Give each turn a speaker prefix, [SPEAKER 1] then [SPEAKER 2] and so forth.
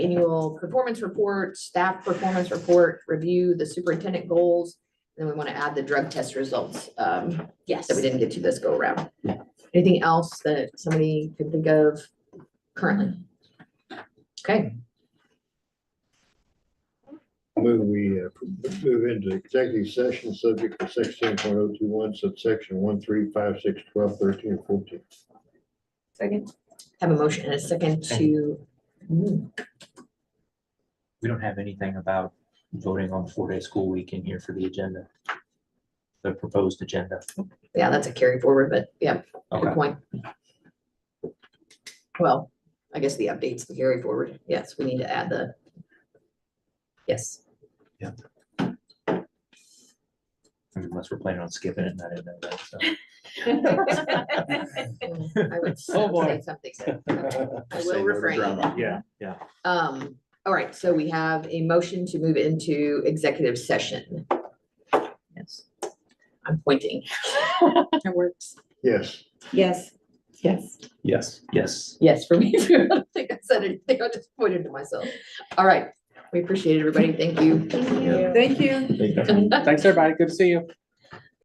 [SPEAKER 1] annual performance report, staff performance report, review the superintendent goals. Then we want to add the drug test results, um,
[SPEAKER 2] Yes.
[SPEAKER 1] that we didn't get to this go around. Anything else that somebody can think of currently? Okay,
[SPEAKER 3] Move we, uh, move into executive session subject to sixteen point oh two one subsection one, three, five, six, twelve, thirteen, and fourteen.
[SPEAKER 4] Second.
[SPEAKER 1] have a motion and a second to, Mm,
[SPEAKER 5] We don't have anything about voting on four-day school week in here for the agenda. The proposed agenda.
[SPEAKER 1] yeah, that's a carry forward, but yeah, good
[SPEAKER 5] Okay,
[SPEAKER 1] point. Well, I guess the updates, the carry forward, yes, we need to add the. Yes.
[SPEAKER 5] unless we're planning on skipping it, and I didn't know that, so.
[SPEAKER 1] I would say something. so, okay, I will refrain.
[SPEAKER 5] Yeah, yeah.
[SPEAKER 1] Um, all right, so we have a motion to move into executive session. Yes. I'm pointing.
[SPEAKER 2] It works.
[SPEAKER 3] Yes.
[SPEAKER 4] Yes.
[SPEAKER 2] Yes.
[SPEAKER 5] Yes. Yes.
[SPEAKER 1] Yes, for me, too. I don't think I said it, I think I just pointed to myself. All right, we appreciate it, everybody. Thank you.
[SPEAKER 2] Thank you.
[SPEAKER 4] Thank you.
[SPEAKER 3] Thank you.
[SPEAKER 6] Thanks, everybody. Good to see you.